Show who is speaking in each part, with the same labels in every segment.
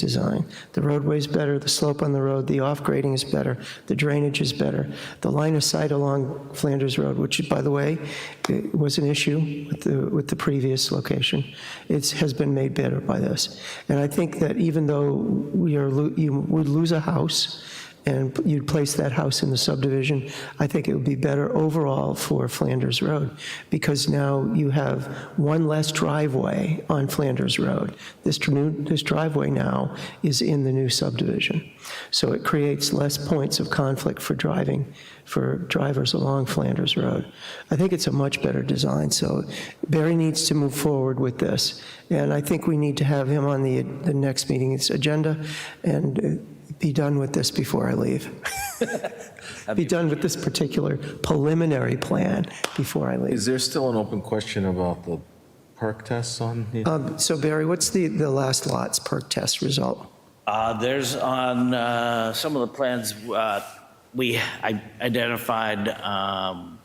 Speaker 1: design. The roadway's better, the slope on the road, the off-grading is better, the drainage is better. The line of sight along Flanders Road, which, by the way, it was an issue with the, with the previous location, it has been made better by this. And I think that even though we are, lo- you would lose a house, and you'd place that house in the subdivision, I think it would be better overall for Flanders Road, because now you have one less driveway on Flanders Road. This dr- new, this driveway now is in the new subdivision. So it creates less points of conflict for driving, for drivers along Flanders Road. I think it's a much better design, so Barry needs to move forward with this, and I think we need to have him on the, the next meeting's agenda, and uh, be done with this before I leave. Be done with this particular preliminary plan before I leave.
Speaker 2: Is there still an open question about the perk tests on? the-
Speaker 1: Um, So Barry, what's the, the last lot's perk test result?
Speaker 3: Uh, There's on uh, some of the plans, uh, we i- identified um,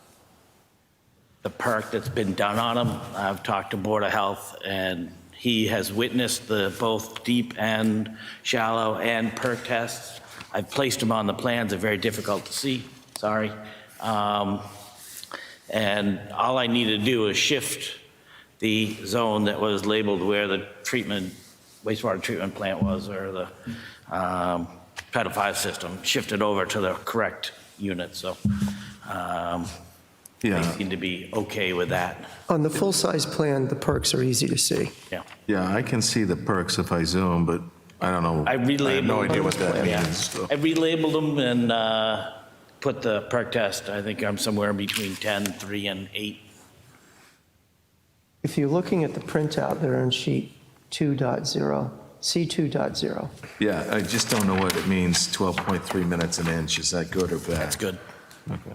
Speaker 3: the perk that's been done on them. I've talked to Board of Health, and he has witnessed the both deep and shallow and perk tests. I've placed them on the plans, they're very difficult to see, sorry. Um, And all I need to do is shift the zone that was labeled where the treatment, wastewater treatment plant was, or the um, Title V system, shift it over to the correct unit, so um, they
Speaker 2: Yeah,
Speaker 3: seem to be okay with that,
Speaker 1: On the full-size plan, the perks are easy to see.
Speaker 3: yeah.
Speaker 2: yeah, I can see the perks if I zoom, but I don't know.
Speaker 3: I relabeled.
Speaker 2: I have no idea what that
Speaker 3: yeah.
Speaker 2: means. so.
Speaker 3: I relabeled them and uh, put the perk test, I think I'm somewhere between 10, 3, and 8.
Speaker 1: If you're looking at the printout, they're on sheet 2.0, C2.0.
Speaker 2: Yeah, I just don't know what it means, 12.3 minutes an inch, is that good or bad?
Speaker 3: That's good,
Speaker 2: Okay.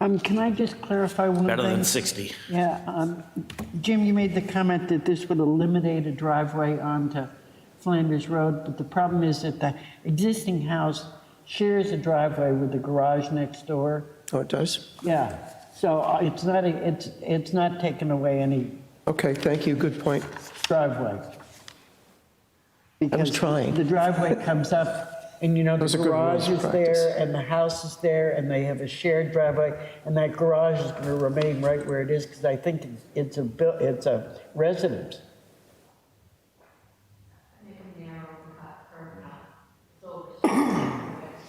Speaker 4: Um, can I just clarify one thing?
Speaker 3: better than 60.
Speaker 4: Yeah, um, Jim, you made the comment that this would eliminate a driveway onto Flanders Road, but the problem is that the existing house shares a driveway with the garage next door.
Speaker 1: Oh, it does?
Speaker 4: Yeah, so uh, it's not, a- it's, it's not taking away any
Speaker 1: Okay, thank you, good point.
Speaker 4: driveway. Because
Speaker 1: trying.
Speaker 4: The driveway comes up, and you know,
Speaker 1: Those
Speaker 4: the
Speaker 1: are good
Speaker 4: garage
Speaker 1: rules
Speaker 4: is
Speaker 1: of practice.
Speaker 4: there, and the house is there, and they have a shared driveway, and that garage is gonna remain right where it is, because I think it's- it's a, buil- it's a residence.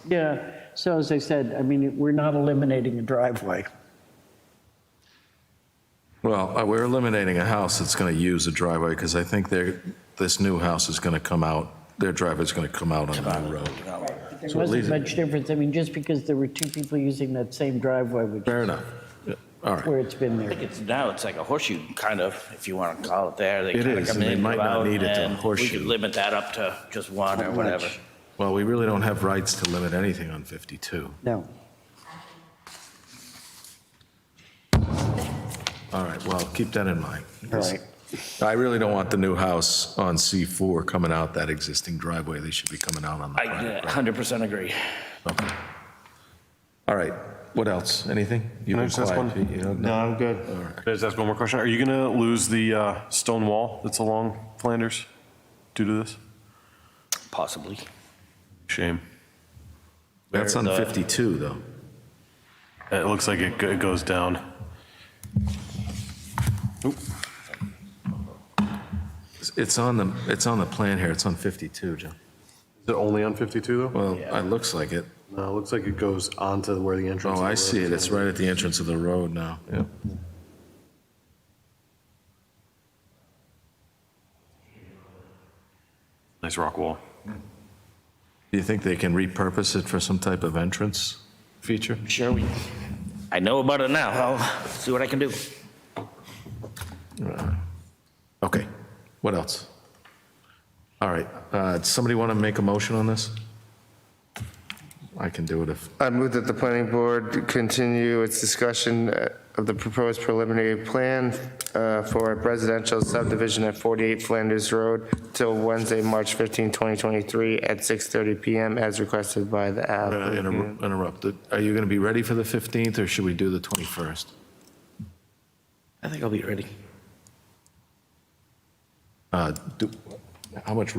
Speaker 4: Yeah, so as I said, I mean, we're not eliminating a driveway.
Speaker 2: Well, uh, we're eliminating a house that's going to use a driveway, because I think they're, this new house is going to come out, their driveway's going to come out on the new road.
Speaker 4: There
Speaker 2: So it leaves
Speaker 4: wasn't
Speaker 2: it-
Speaker 4: much difference, I mean, just because there were two people using that same driveway, which,
Speaker 2: Fair enough. Yeah, All right.
Speaker 4: where it's been there.
Speaker 3: I think it's, now it's like a horseshoe, kind of, if you want to call it there. They
Speaker 2: It
Speaker 3: kinda
Speaker 2: is,
Speaker 3: come
Speaker 2: and they
Speaker 3: in,
Speaker 2: might
Speaker 3: go
Speaker 2: not
Speaker 3: out,
Speaker 2: need it to
Speaker 3: and We
Speaker 2: horseshoe.
Speaker 3: could limit that up to just one or
Speaker 4: Not
Speaker 3: whatever.
Speaker 4: much.
Speaker 2: Well, we really don't have rights to limit anything on 52.
Speaker 4: No.
Speaker 2: All right, well, keep that in mind.
Speaker 4: All right.
Speaker 2: I really don't want the new house on C4 coming out that existing driveway. They should be coming out on the
Speaker 3: I
Speaker 2: private.
Speaker 3: uh, 100% agree.
Speaker 2: Okay. All right, what else? Anything? You've
Speaker 5: Can I
Speaker 2: been
Speaker 5: just ask
Speaker 2: quiet,
Speaker 5: one?
Speaker 2: Pete, you don't-
Speaker 5: No, I'm good. Can I just ask one more question? Are you going to lose the uh, stone wall that's along Flanders due to this?
Speaker 3: Possibly.
Speaker 5: Shame.
Speaker 2: That's on
Speaker 3: Where the-
Speaker 2: 52, though.
Speaker 5: It looks like it go- it goes down.
Speaker 2: It's- It's on the, it's on the plan here, it's on 52, John.
Speaker 6: Is it only on 52, though?
Speaker 2: Well, it looks like it.
Speaker 6: No, it looks like it goes onto where the entrance.
Speaker 2: Oh, I see it, it's right at the entrance of the road now. Yeah.
Speaker 5: Nice rock wall.
Speaker 2: Do you think they can repurpose it for some type of entrance feature?
Speaker 3: Sure, we, I know about it now. I'll see what I can do.
Speaker 2: Okay, what else? All right, uh, does somebody want to make a motion on this? I can do it if,
Speaker 7: I move that the planning board continue its discussion uh, of the proposed preliminary plan uh, for a residential subdivision at 48 Flanders Road till Wednesday, March 15, 2023, at 6:30 PM as requested by the
Speaker 2: I'm gonna
Speaker 7: app.
Speaker 2: inter- interrupt. Are you going to be ready for the 15th, or should we do the 21st?
Speaker 3: I think I'll be ready.
Speaker 2: Uh, do- How much